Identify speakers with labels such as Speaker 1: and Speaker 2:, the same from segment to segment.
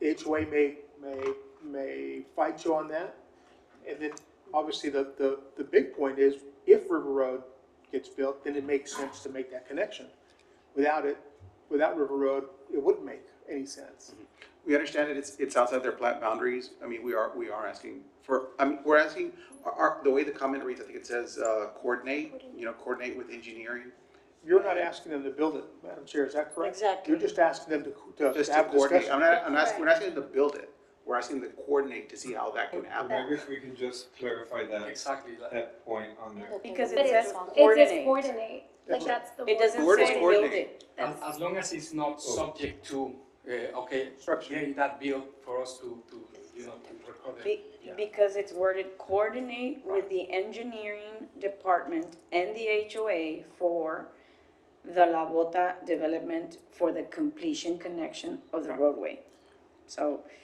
Speaker 1: the HOA may, may, may fight you on that. And then, obviously, the, the, the big point is, if River Road gets built, then it makes sense to make that connection. Without it, without River Road, it wouldn't make any sense.
Speaker 2: Mm-hmm. We understand that it's, it's outside their plat boundaries. I mean, we are, we are asking for, I mean, we're asking, our- our, the way the comment reads, I think it says, uh, coordinate, you know, coordinate with engineering.
Speaker 1: You're not asking them to build it, Madam Chair, is that correct?
Speaker 3: Exactly.
Speaker 1: You're just asking them to, to
Speaker 2: Just to
Speaker 1: have
Speaker 2: coordinate, I'm
Speaker 1: discussion.
Speaker 2: not, I'm not, we're not asking them to build it. We're asking them to coordinate to see how that can
Speaker 4: I
Speaker 2: happen.
Speaker 4: guess we can just clarify that,
Speaker 5: Exactly. like-
Speaker 4: that point on there.
Speaker 6: Because
Speaker 7: But
Speaker 6: it
Speaker 7: it's-
Speaker 6: says
Speaker 7: It says
Speaker 6: coordinate.
Speaker 7: coordinate, like that's the word.
Speaker 3: It doesn't
Speaker 2: Word is
Speaker 3: say
Speaker 2: coordinate.
Speaker 3: building.
Speaker 5: As, as long as it's not subject to, uh, okay,
Speaker 1: Structure.
Speaker 5: getting that bill for us to, to, you know, to record it.
Speaker 3: Be- Because it's worded coordinate with the engineering department and the HOA for the La Bota development for the completion connection of the roadway. So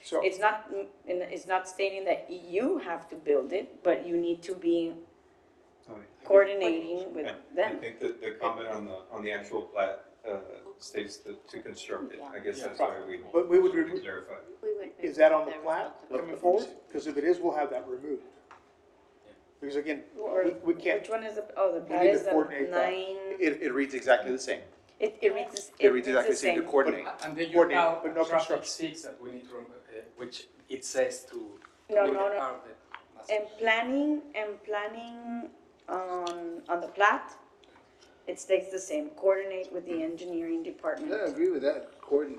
Speaker 1: So-
Speaker 3: it's not, mm, and it's not stating that you have to build it, but you need to be coordinating with
Speaker 4: I- I
Speaker 3: them.
Speaker 4: think that the comment on the, on the actual plat, uh, states that to construct it, I guess that's why we.
Speaker 1: But we would
Speaker 4: should
Speaker 1: remove-
Speaker 4: Clarify.
Speaker 7: We would
Speaker 1: Is
Speaker 7: move
Speaker 1: that on the
Speaker 7: there.
Speaker 1: plat coming forward? Because if it is, we'll have that removed. Because again,
Speaker 3: Or-
Speaker 1: we, we can't,
Speaker 3: Which one is the, oh, the plat
Speaker 1: need to
Speaker 3: is the
Speaker 1: coordinate that.
Speaker 3: nine,
Speaker 2: It, it reads exactly the same.
Speaker 3: it, it reads, this-
Speaker 2: It
Speaker 3: it
Speaker 2: reads
Speaker 3: reads
Speaker 2: exactly
Speaker 3: the
Speaker 2: the same, to
Speaker 3: same.
Speaker 2: coordinate.
Speaker 5: And then you
Speaker 1: Coordinate,
Speaker 5: have
Speaker 1: but no
Speaker 5: traffic
Speaker 1: construction.
Speaker 5: six that we need to, remember, uh, which it says to.
Speaker 3: No,
Speaker 5: make
Speaker 3: no, no.
Speaker 5: part of it. That's-
Speaker 3: And planning, and planning on, on the plat, it stays the same, coordinate with the engineering
Speaker 8: I don't
Speaker 3: department.
Speaker 8: agree with that, Gordon.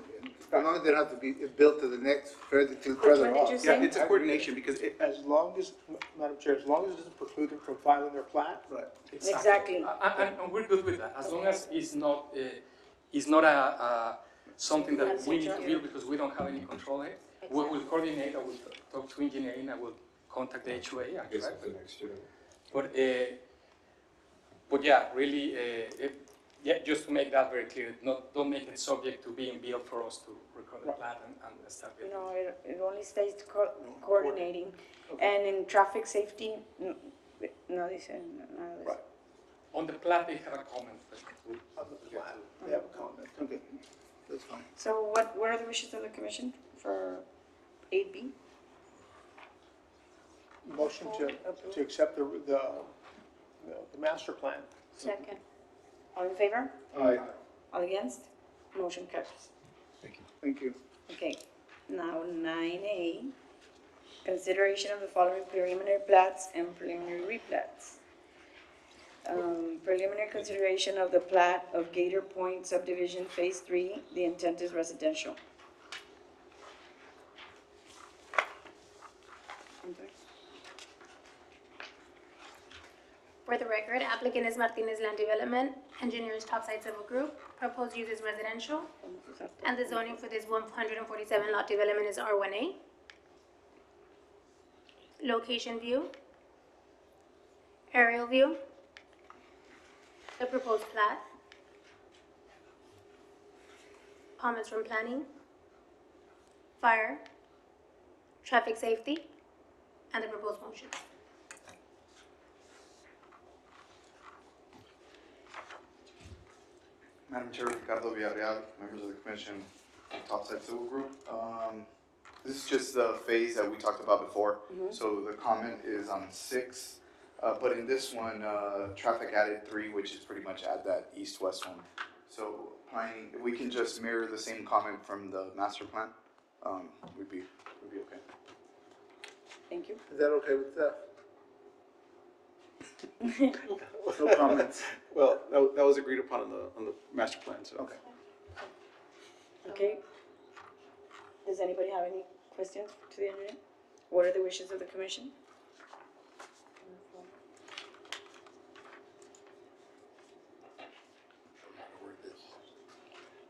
Speaker 8: As long as they don't have to be built to the next, further to
Speaker 3: Which
Speaker 8: further
Speaker 3: one did you
Speaker 8: off.
Speaker 2: Yeah,
Speaker 3: say?
Speaker 2: it's a coordination because it,
Speaker 1: as long as, Madam Chair, as long as it doesn't preclude them from filing their plat,
Speaker 3: Exactly.
Speaker 5: A- a- And, and we're good with that, as long as it's not, uh, it's not a, a, something that we need to build because we don't have any control here. We will coordinate, I will talk to engineering, I will contact the HOA, and
Speaker 4: I guess
Speaker 5: try
Speaker 4: it's the next year.
Speaker 5: But, uh, but yeah, really, uh, it- yeah, just to make that very clear, not, don't make it subject to being built for us to record the plan and, and start building.
Speaker 3: No, it, it only stays co- coordinating, and in traffic safety, n- no, they said, no, they said.
Speaker 1: Right.
Speaker 5: On the plan, they have a comment. but we-
Speaker 1: on the plat, they have a comment.
Speaker 8: Okay, that's fine.
Speaker 3: So what, what are the wishes of the commission for eight B?
Speaker 1: Motion to, to accept the, the, the master plan.
Speaker 7: Second.
Speaker 3: All in favor?
Speaker 8: Aye.
Speaker 3: All against? Motion carries.
Speaker 8: Thank you.
Speaker 3: Okay, now nine A, consideration of the following preliminary plats and preliminary replats. Um, preliminary consideration of the plat of Gator Point subdivision phase three, the intent is residential. I'm sorry?
Speaker 7: For the record, applicant is Martinez Land Development, engineers Topside Civil Group, proposed use is residential, and the zoning for this one hundred and forty-seven lot development is R one A. Location view. Aerial view. The proposed plat. Comments from planning. Fire. Traffic safety, and the proposed motion.
Speaker 9: Madam Chair, Ricardo Villarreal, members of the commission, Topside Civil Group. Um, This is just the phase that we talked about before. So the comment is on six, uh, but in this one, uh, traffic added three, which is pretty much at that east-west one. So applying, if we can just mirror the same comment from the master plan, um, we'd be, we'd be okay.
Speaker 3: Thank you.
Speaker 8: Is that okay with staff? No comments.
Speaker 2: well, that, wa- that was agreed upon on the, on the master plan, so.
Speaker 8: Okay.
Speaker 3: Okay. Does anybody have any questions to the engineer? What are the wishes of the commission?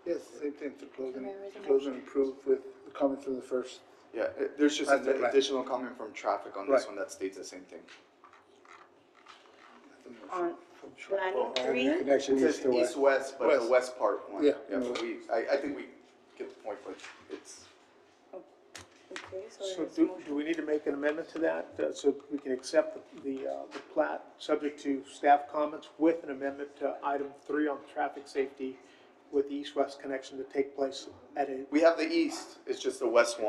Speaker 8: Yes, same thing, to close and, close and approve with the comments from the first.
Speaker 9: Yeah, it- there's just
Speaker 8: That's the
Speaker 9: an
Speaker 8: plan.
Speaker 9: additional comment from traffic on this
Speaker 8: Right.
Speaker 9: one that states the same thing.
Speaker 3: On planning three?
Speaker 8: Connection
Speaker 9: It
Speaker 8: east
Speaker 9: says
Speaker 8: to west.
Speaker 9: east-west, but the
Speaker 8: West.
Speaker 9: west part one.
Speaker 8: Yeah.
Speaker 9: but we, I, I think we get the point, but it's.
Speaker 3: Okay, so
Speaker 1: So
Speaker 3: there's a
Speaker 1: do,
Speaker 3: Oh, motion.
Speaker 1: do we need to make an amendment to that, uh, so we can accept the, the, uh, the plat, subject to staff comments with an amendment to item three on traffic safety with the east-west connection to take place at a
Speaker 9: We have the east, it's just the west one.